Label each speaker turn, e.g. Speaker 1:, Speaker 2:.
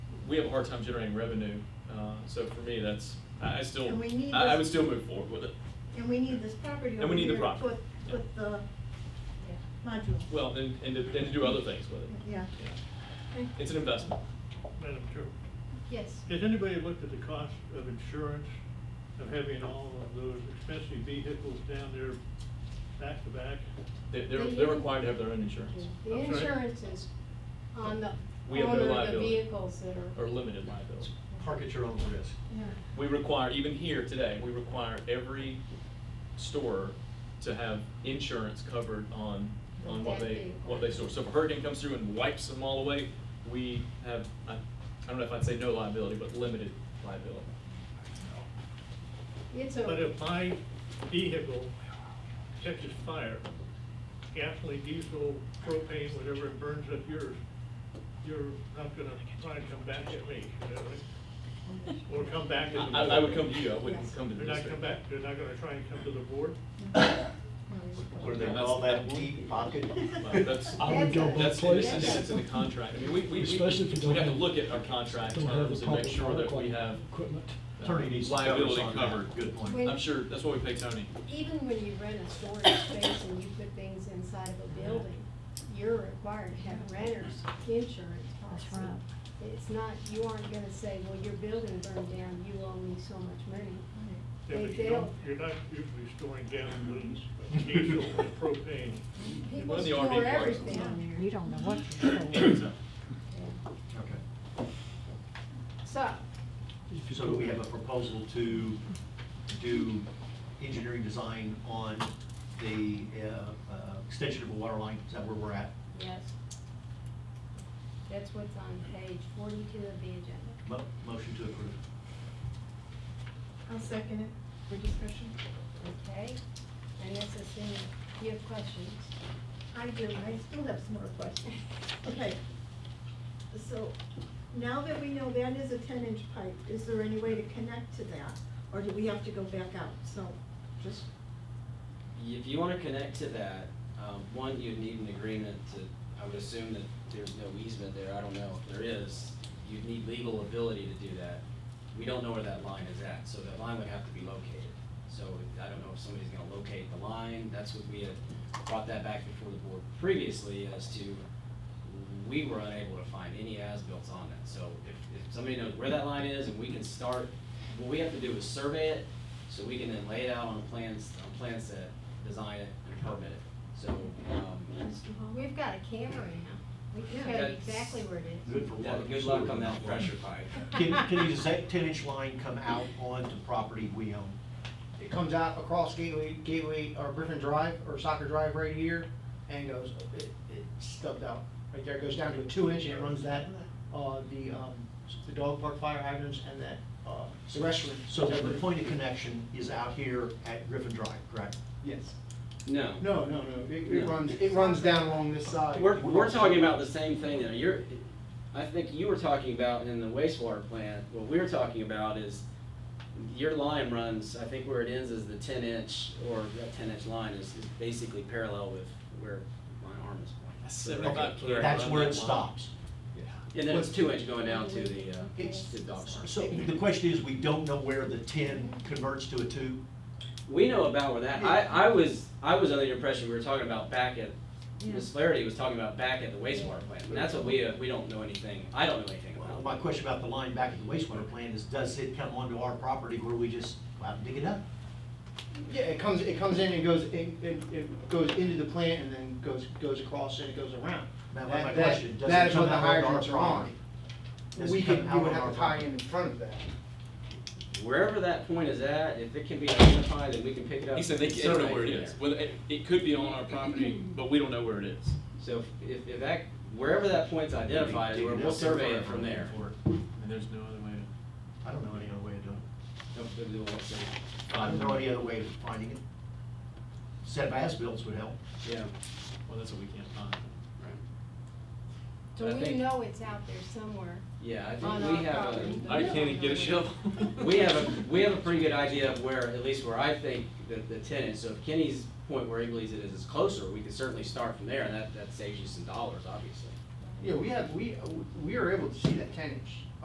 Speaker 1: we have a hard time generating revenue. Uh, so for me, that's, I, I still,
Speaker 2: And we need
Speaker 1: I, I
Speaker 2: this-
Speaker 1: would still move forward with it.
Speaker 2: And we need this property
Speaker 1: And
Speaker 2: over
Speaker 1: we need the
Speaker 2: here to
Speaker 1: property,
Speaker 2: put,
Speaker 1: yeah.
Speaker 2: put the module.
Speaker 1: Well, and, and to, and to do other things with it.
Speaker 2: Yeah.
Speaker 1: It's an investment.
Speaker 3: Madam Chair,
Speaker 4: Yes.
Speaker 3: has anybody looked at the cost of insurance of having all of those expensive vehicles down there back to back?
Speaker 1: They, they're,
Speaker 4: They
Speaker 1: they're
Speaker 4: do.
Speaker 1: required to have their own insurance.
Speaker 4: The
Speaker 3: I'm sorry?
Speaker 4: insurance is on the
Speaker 1: We have no
Speaker 4: owner of the
Speaker 1: liability.
Speaker 4: vehicles that are.
Speaker 1: Or limited liability.
Speaker 5: Park at your own risk.
Speaker 1: We require, even here today, we require every store to have insurance covered on, on what
Speaker 4: That
Speaker 1: they,
Speaker 4: vehicle.
Speaker 1: what they store. So if a hurricane comes through and wipes them all away, we have, I, I don't know if I'd say no liability, but limited liability.
Speaker 4: It's
Speaker 3: But
Speaker 4: a,
Speaker 3: if my vehicle catches fire, gasoline, diesel, propane, whatever, it burns up yours, you're not gonna try to come back at me, you know? Or come back at the.
Speaker 1: I, I would
Speaker 3: board.
Speaker 1: come to you, I wouldn't come to the
Speaker 3: They're not
Speaker 1: district.
Speaker 3: come back, they're not gonna try and come to the board?
Speaker 5: Where they
Speaker 1: That's-
Speaker 5: call that
Speaker 1: that one.
Speaker 5: deep pocket.
Speaker 1: Well, that's-
Speaker 6: I would go
Speaker 1: That's,
Speaker 6: both
Speaker 1: that's,
Speaker 6: places.
Speaker 1: it's in the contract. I mean, we, we, we
Speaker 6: Especially if you don't
Speaker 1: we have to
Speaker 6: have-
Speaker 1: look at our contract
Speaker 6: Don't have the
Speaker 1: terms and make
Speaker 6: public
Speaker 1: sure that we
Speaker 6: park
Speaker 1: have
Speaker 6: Equipment.
Speaker 1: uh,
Speaker 5: Attorney needs to cover us
Speaker 1: liability
Speaker 5: on that.
Speaker 1: covered.
Speaker 5: Good point.
Speaker 4: When-
Speaker 1: I'm sure, that's what we pay Tony.
Speaker 4: even when you rent a storage space and you put things inside of a building, you're required to have renter's insurance policy.
Speaker 7: That's right.
Speaker 4: It's not, you aren't gonna say, well, your building burned down, you owe me so much money.
Speaker 3: Yeah,
Speaker 4: They,
Speaker 3: but you
Speaker 4: they'll,
Speaker 3: don't, you're not usually storing gasoline, diesel, and propane.
Speaker 1: One
Speaker 4: people
Speaker 1: of the RV
Speaker 4: store
Speaker 1: parks.
Speaker 4: everything on there.
Speaker 7: You don't know what you're doing.
Speaker 5: Okay.
Speaker 4: So,
Speaker 5: So we have a proposal to do engineering design on the uh, uh, extension of a water line, is that where we're at?
Speaker 4: yes. That's what's on page forty-two of the agenda.
Speaker 5: Mo- Motion to approve.
Speaker 2: I'll second it for discussion.
Speaker 4: Okay, and this is in, you have questions?
Speaker 2: I do, I still have some more questions. Okay. So now that we know that is a ten inch pipe, is there any way to connect to that? Or do we have to go back out? So just,
Speaker 8: If you wanna connect to that, um, one, you'd need an agreement to, I would assume that there's no easement there, I don't know if there is. You'd need legal ability to do that. We don't know where that line is at, so that line would have to be located. So I don't know if somebody's gonna locate the line, that's what we had brought that back before the board previously as to, we were unable to find any as-built on that. So if, if somebody knows where that line is and we can start, what we have to do is survey it, so we can then lay it out on a plans, on plan set, design it, and permit it. So, um,
Speaker 2: Mr. Hall?
Speaker 4: We've got a camera now. We can
Speaker 2: Yeah.
Speaker 4: tell you
Speaker 8: That's-
Speaker 4: exactly where it is.
Speaker 5: Good for
Speaker 8: yeah,
Speaker 5: water.
Speaker 8: good luck on that pressure pipe.
Speaker 5: Can, can you say ten inch line come out onto property we own?
Speaker 9: It comes out across Gateway, Gateway, or Griffin Drive, or Soccer Drive right here, and goes, it, it stubbed out. Right there, It goes down to a two inch, and it runs that, uh, the, um, the dog park fire hydrants and that, uh, the restroom.
Speaker 5: So that the point of connection is out here at Griffin Drive, correct?
Speaker 9: Yes.
Speaker 8: No.
Speaker 9: No, no, no, it, it
Speaker 8: No.
Speaker 9: runs, it runs down along this side.
Speaker 8: We're, we're talking about the same thing there. You're, I think you were talking about in the wastewater plant, what we were talking about is your line runs, I think where it ends is the ten inch, or that ten inch line is, is basically parallel with where my arm is pointing.
Speaker 1: Seventy-five
Speaker 5: Okay,
Speaker 1: clear
Speaker 5: That's
Speaker 1: on
Speaker 5: where
Speaker 1: that
Speaker 5: it
Speaker 1: line.
Speaker 5: stops.
Speaker 8: And then it's two inch going down to the, uh,
Speaker 5: It's-
Speaker 8: to dog park.
Speaker 5: So the question is, we don't know where the ten converts to a two?
Speaker 8: We know about where that, I, I was, I was under the impression we were talking about back at, Ms. Flaherty was talking about back at the wastewater plant, and that's what we, uh, we don't know anything, I don't know anything
Speaker 5: Well,
Speaker 8: about.
Speaker 5: My question about the line back at the wastewater plant is, does it come onto our property where we just go out and dig it up?
Speaker 9: Yeah, it comes, it comes in and goes, it, it, it goes into the plant and then goes, goes across and it goes around.
Speaker 5: That was my
Speaker 9: that-
Speaker 5: question. Does
Speaker 9: That
Speaker 5: it
Speaker 9: is what
Speaker 5: come
Speaker 9: the
Speaker 5: out of our
Speaker 9: hydrants are on.
Speaker 5: property? Does it
Speaker 9: We
Speaker 5: come
Speaker 9: could, we
Speaker 5: out
Speaker 9: would
Speaker 5: of
Speaker 9: have
Speaker 5: our
Speaker 9: to tie
Speaker 5: property?
Speaker 9: in in front of that.
Speaker 8: Wherever that point is at, if it can be identified, then we can pick it up.
Speaker 1: He said they,
Speaker 8: and
Speaker 1: they don't know
Speaker 8: survey
Speaker 1: where it
Speaker 8: from there.
Speaker 1: is. Well, it, it could be on our property, but we don't know where it is.
Speaker 8: So if- if, if that, wherever that point's identified,
Speaker 5: Dig
Speaker 8: we'll,
Speaker 5: it
Speaker 8: we'll
Speaker 5: up
Speaker 8: survey it
Speaker 5: before
Speaker 8: from
Speaker 5: I-
Speaker 8: there.
Speaker 5: before-
Speaker 1: And there's no other way to.
Speaker 5: I don't know any other way of doing it.
Speaker 8: Nope, we'll do all the-
Speaker 5: I don't know any other way of finding it. Set of as-bills would help.
Speaker 8: Yeah,
Speaker 1: Well, that's what we can't find.
Speaker 8: right.
Speaker 4: So
Speaker 8: I
Speaker 4: we
Speaker 8: think-
Speaker 4: know it's out there somewhere.
Speaker 8: Yeah, I
Speaker 4: On
Speaker 8: think
Speaker 4: our
Speaker 8: we have
Speaker 4: property.
Speaker 8: a,
Speaker 1: I can't even get a shovel.
Speaker 8: Uh, we have a, we have a pretty good idea of where, at least where I think the, the ten is, so if Kenny's point where he believes it is is closer, we can certainly start from there, and that, that saves you some dollars, obviously.
Speaker 9: Yeah, we have, we, we are able to see that ten inch.